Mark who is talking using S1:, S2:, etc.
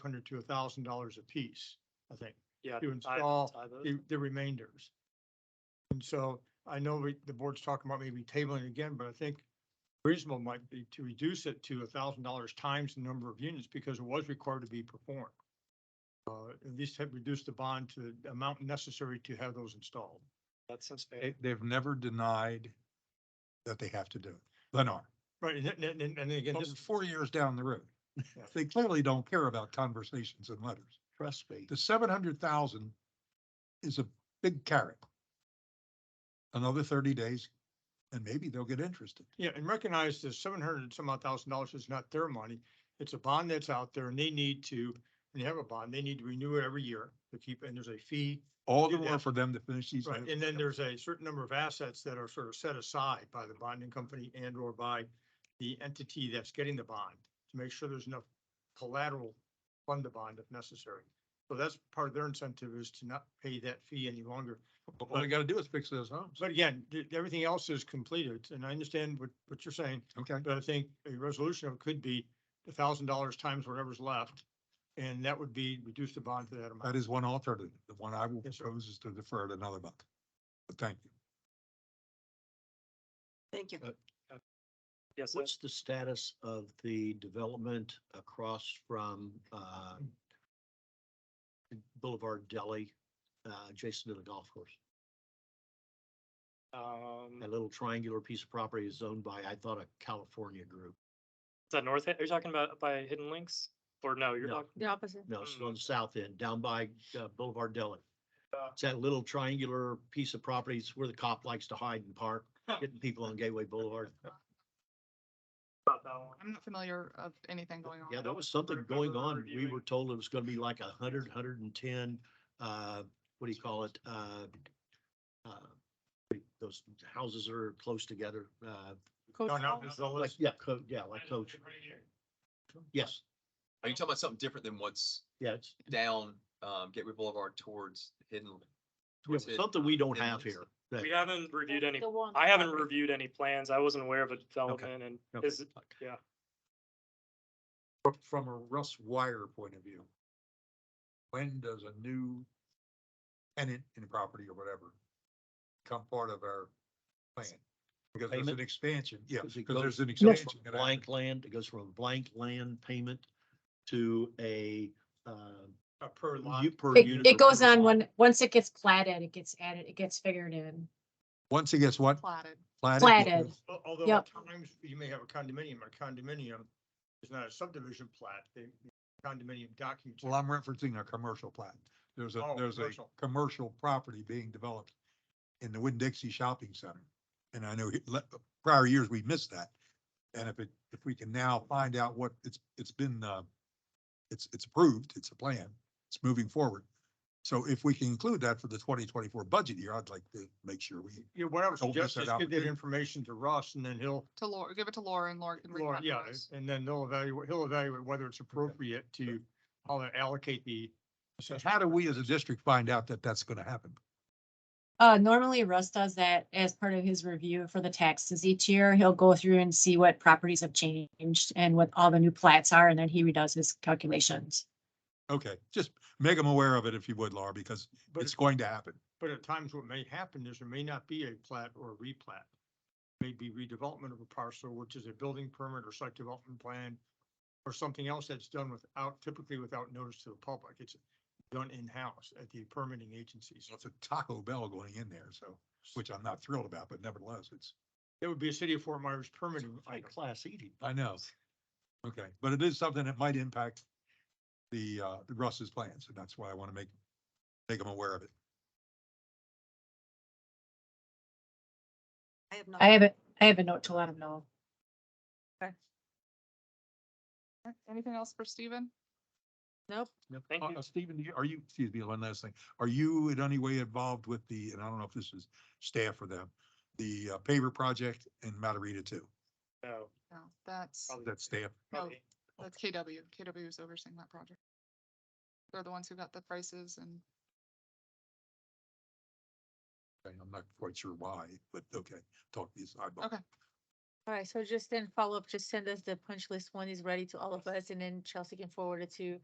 S1: hundred to a thousand dollars apiece, I think,
S2: Yeah.
S1: to
S2: I-
S1: install
S2: I those.
S1: the, the remainders. And so I know we- the board's talking about maybe tabling it again, but I think reasonable might be to reduce it to a thousand dollars times the number of units because it was required to be performed. Uh, at least have reduced the bond to the amount necessary to have those installed.
S2: That seems fair.
S3: They, they've never denied that they have to do it. Lennar,
S1: Right, and, then- and, then- and then again,
S3: but
S1: this
S3: we're four years down the road. They clearly don't care about conversations and letters.
S4: Trust me.
S3: The seven hundred thousand is a big carrot. Another thirty days and maybe they'll get interested.
S1: Yeah, and recognize the seven hundred and some odd thousand dollars is not their money. It's a bond that's out there and they need to, and they have a bond, they need to renew it every year to keep, and there's a fee.
S3: All the
S1: Yeah.
S3: more for them to finish these.
S1: Right, and then there's a certain number of assets that are sort of set aside by the bonding company and or by the entity that's getting the bond to make sure there's enough collateral to fund the bond if necessary. So that's part of their incentive is to not pay that fee any longer.
S3: But What they gotta do is fix those homes.
S1: But again, th- everything else is completed and I understand what, what you're saying.
S3: Okay.
S1: But I think a resolution of it could be a thousand dollars times whatever's left, and that would be reduce the bond to that
S3: That
S1: amount.
S3: is one alternative. The one I will
S1: Yes, sir.
S3: propose is to defer it another month. But thank you.
S5: Thank you.
S1: Uh,
S2: Yes, sir.
S4: What's the status of the development across from uh, Boulevard Deli, uh, adjacent to the golf course?
S2: um,
S4: That
S2: is
S4: little triangular piece of property is owned by, I thought, a California group.
S2: that north, are you talking about by Hidden Links? Or no, you're
S4: No.
S2: talking,
S5: The opposite.
S4: No, it's
S2: Mm.
S4: on the south end, down by uh, Boulevard Deli.
S2: Uh.
S4: It's that little triangular piece of property. It's where the cop likes to hide and park, getting people on Gateway Boulevard.
S2: about that one.
S6: I'm not familiar of anything going on.
S4: Yeah, there
S2: that
S4: was something
S2: we're- that
S4: going
S2: we're
S4: on. We were
S2: reviewing.
S4: told it was gonna be like a hundred, hundred and ten, uh, what do you call it? Uh, uh, those houses are close together, uh,
S6: Coach
S1: No, no,
S6: Hall?
S1: it's the
S4: like,
S1: list.
S4: yeah, co- yeah, like coach. Yes,
S7: Are you talking about something different than what's
S4: yeah, it's
S7: down, um, Gateway Boulevard towards Hidden?
S4: yeah,
S7: towards Hidden-
S4: something we don't
S7: Hidden
S4: have
S7: Links?
S4: here. that-
S2: We haven't reviewed any,
S5: The one-
S2: I haven't reviewed any plans. I wasn't aware of a development and
S4: Okay.
S2: is, yeah.
S3: From, from a Russ Wire point of view, when does a new tenant in property or whatever become part of our plan? Because there's an
S4: Payment?
S3: expansion, yeah,
S4: 'Cause it
S3: because there's an
S4: It goes
S3: expansion.
S4: from
S3: gonna happen.
S4: Blank land, it goes from a blank land payment to a, uh,
S1: Uh, Per lot.
S4: u- per
S8: It,
S4: unit or
S8: it goes
S4: per
S8: on
S4: lot.
S8: when, once it gets platted, it gets added, it gets figured in.
S3: Once it gets what?
S6: Platted.
S8: Platted.
S1: Al- Although at
S8: Yep.
S1: times you may have a condominium, a condominium is not a subdivision plat, the condominium documents.
S3: Well, I'm referencing a commercial plat. There's a,
S1: Oh,
S3: there's a
S1: commercial. commercial
S3: commercial property being developed in the Winn-Dixie Shopping Center. And I know it le- prior years we missed that. And if it, if we can now find out what it's, it's been, uh, it's, it's approved, it's a plan, it's moving forward. So if we can include that for the twenty twenty-four budget year, I'd like to make sure we,
S1: Yeah, what I would
S3: Don't miss
S1: suggest
S3: that
S1: is give that
S3: opportunity.
S1: information to Russ and then he'll,
S6: To Laura, give it to Laura and Laura can. reach
S1: Laura,
S6: out to
S1: yeah,
S6: us.
S1: and then they'll evaluate, he'll evaluate whether it's appropriate to, how to allocate the.
S3: how do we as a district find out that that's going to happen?
S8: Uh, normally Russ does that as part of his review for the taxes each year. He'll go through and see what properties have changed and what all the new plats are, and then he redoes his calculations.
S3: Okay, just make them aware of it if you would, Laura, because
S1: But
S3: it's going to happen.
S1: But at times what may happen is there may not be a plat or a replat. Maybe redevelopment of a parcel, which is a building permit or site development plan. Or something else that's done without, typically without notice to the public. It's done in-house at the permitting agencies.
S3: It's a Taco Bell going in there, so, which I'm not thrilled about, but nevertheless, it's,
S1: It would be a city of Fort Myers permitting
S4: Like
S1: item.
S4: class E eating.
S3: I know. Okay, but it is something that might impact the, uh, Russ's plans, and that's why I want to make, make them aware of it.
S5: I have not.
S8: I have a, I have a note to let him know.
S6: Okay, Anything else for Steven?
S5: Nope.
S2: Thank
S3: Uh,
S2: you.
S3: uh, Stephen, do you- are you, excuse me, one last thing, are you in any way involved with the, and I don't know if this is staff or them, the uh, paver project in Matarita too?
S2: No.
S6: No, that's,
S2: Probably-
S3: That's staff,
S6: no,
S2: probably-
S6: that's KW. KW is overseeing that project. They're the ones who got the prices and
S3: Okay, I'm not quite sure why, but okay, talk to you sidebar.
S6: Okay.
S5: All right, so just then follow up, just send us the punch list when it's ready to all of us and then Chelsea can forward it to